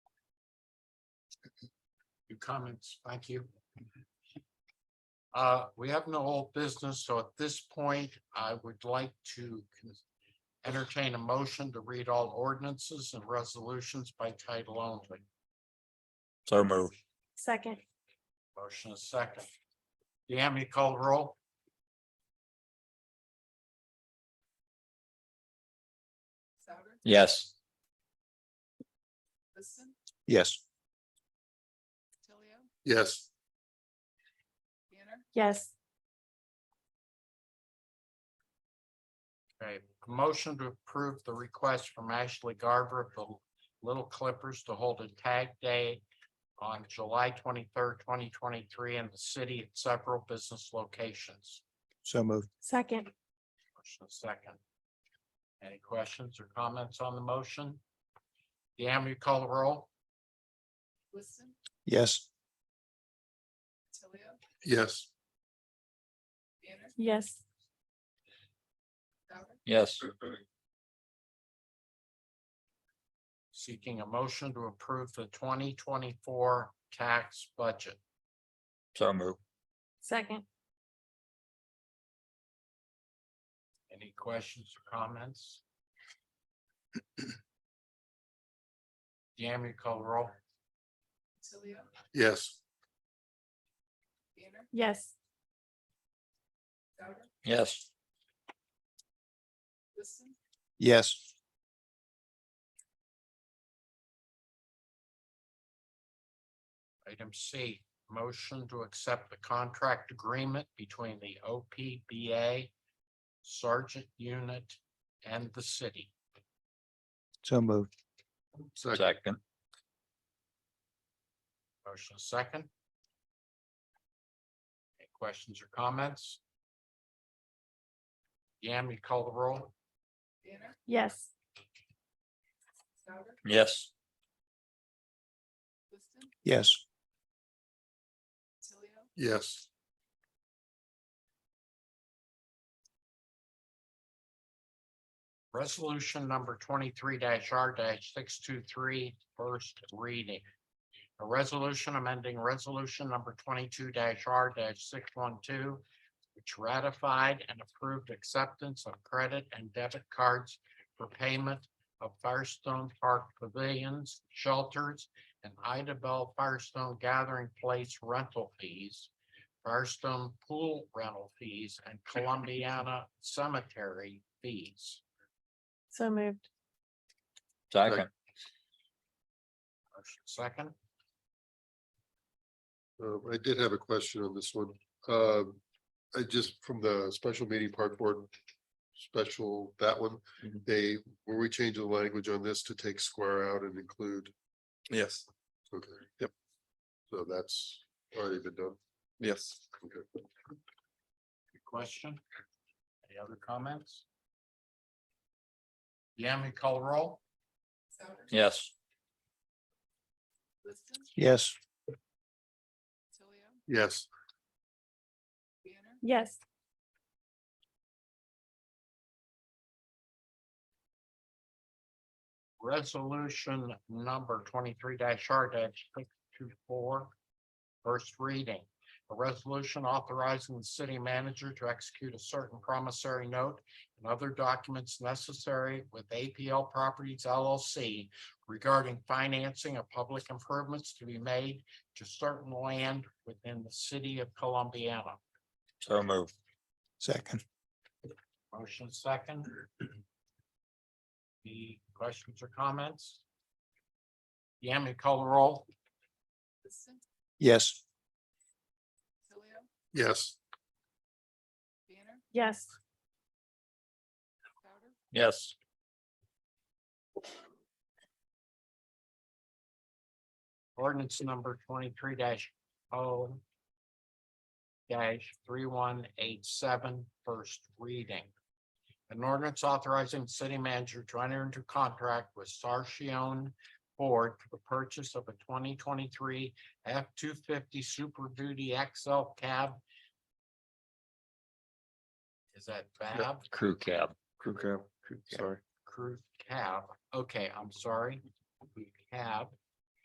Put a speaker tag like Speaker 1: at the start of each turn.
Speaker 1: Your comments, thank you. Uh, we have no old business, so at this point, I would like to con- entertain a motion to read all ordinances and resolutions by title only.
Speaker 2: So moved.
Speaker 3: Second,
Speaker 1: Motion is second. Deanne, you call the roll?
Speaker 4: Souter,
Speaker 2: Yes.
Speaker 4: Liston,
Speaker 2: Yes.
Speaker 4: Tilio,
Speaker 1: Yes.
Speaker 4: Banner,
Speaker 3: yes,
Speaker 1: Okay, motion to approve the request from Ashley Garber of the Little Clippers to hold a tag day on July twenty-third, twenty twenty-three in the city at several business locations.
Speaker 2: So moved.
Speaker 3: second,
Speaker 1: Motion is second. Any questions or comments on the motion? Deanne, will you call the roll?
Speaker 4: Liston,
Speaker 2: Yes.
Speaker 4: Tilio,
Speaker 1: Yes.
Speaker 4: Banner,
Speaker 3: yes,
Speaker 4: Souter,
Speaker 2: Yes.
Speaker 1: Seeking a motion to approve the twenty twenty-four tax budget.
Speaker 2: So moved.
Speaker 3: second,
Speaker 1: Any questions or comments? Deanne, will you call the roll?
Speaker 4: Tilio,
Speaker 1: Yes.
Speaker 4: Banner,
Speaker 3: yes,
Speaker 4: Souter,
Speaker 2: Yes.
Speaker 4: Liston,
Speaker 2: Yes.
Speaker 1: Item C, motion to accept the contract agreement between the OPBA Sergeant Unit and the city.
Speaker 2: So moved.
Speaker 1: Second.
Speaker 2: Second.
Speaker 1: Motion second. Any questions or comments? Yam, you call the roll?
Speaker 4: Banner,
Speaker 3: yes,
Speaker 4: Souter,
Speaker 2: Yes.
Speaker 4: Liston,
Speaker 2: Yes.
Speaker 4: Tilio,
Speaker 1: Yes. Resolution number twenty-three R six two three, first reading. A resolution amending resolution number twenty-two R six one two, which ratified and approved acceptance of credit and debit cards for payment of Firestone Park pavilions, shelters, and Ida Bell Firestone Gathering Place rental fees, Firestone Pool rental fees, and Columbiana Cemetery fees.
Speaker 3: so moved,
Speaker 2: Second.
Speaker 1: Motion Second,
Speaker 5: Uh, I did have a question on this one. Um I just, from the special meeting park board, special, that one,
Speaker 2: Mhm.
Speaker 5: they, were we changing the language on this to take square out and include?
Speaker 6: Yes,
Speaker 5: Okay, yep. So that's already been done.
Speaker 6: yes.
Speaker 5: Okay.
Speaker 1: good question. Any other comments? Yami Colerole?
Speaker 4: Souter,
Speaker 2: Yes.
Speaker 4: Liston,
Speaker 2: Yes.
Speaker 4: Tilio,
Speaker 5: Yes,
Speaker 4: Banner,
Speaker 3: yes,
Speaker 1: Resolution number twenty-three R six two four. First reading, a resolution authorizing the city manager to execute a certain promissory note and other documents necessary with APL Properties LLC regarding financing of public improvements to be made to certain land within the city of Columbiana.
Speaker 2: So moved. Second.
Speaker 1: Motion second. The questions or comments? Yami, call the roll.
Speaker 4: Liston,
Speaker 2: Yes.
Speaker 4: Tilio,
Speaker 5: yes,
Speaker 4: Banner,
Speaker 3: yes,
Speaker 4: Souter,
Speaker 2: Yes.
Speaker 1: Ordinance number twenty-three 0 three one eight seven, first reading. An ordinance authorizing city manager to enter into contract with Sarchion Ford for the purchase of a twenty twenty-three F two fifty Super Duty XL cab. Is that fab?
Speaker 2: Crew cab.
Speaker 6: Crew cab,
Speaker 1: Yeah.
Speaker 6: sorry.
Speaker 1: Cruise cab, okay, I'm sorry, We cab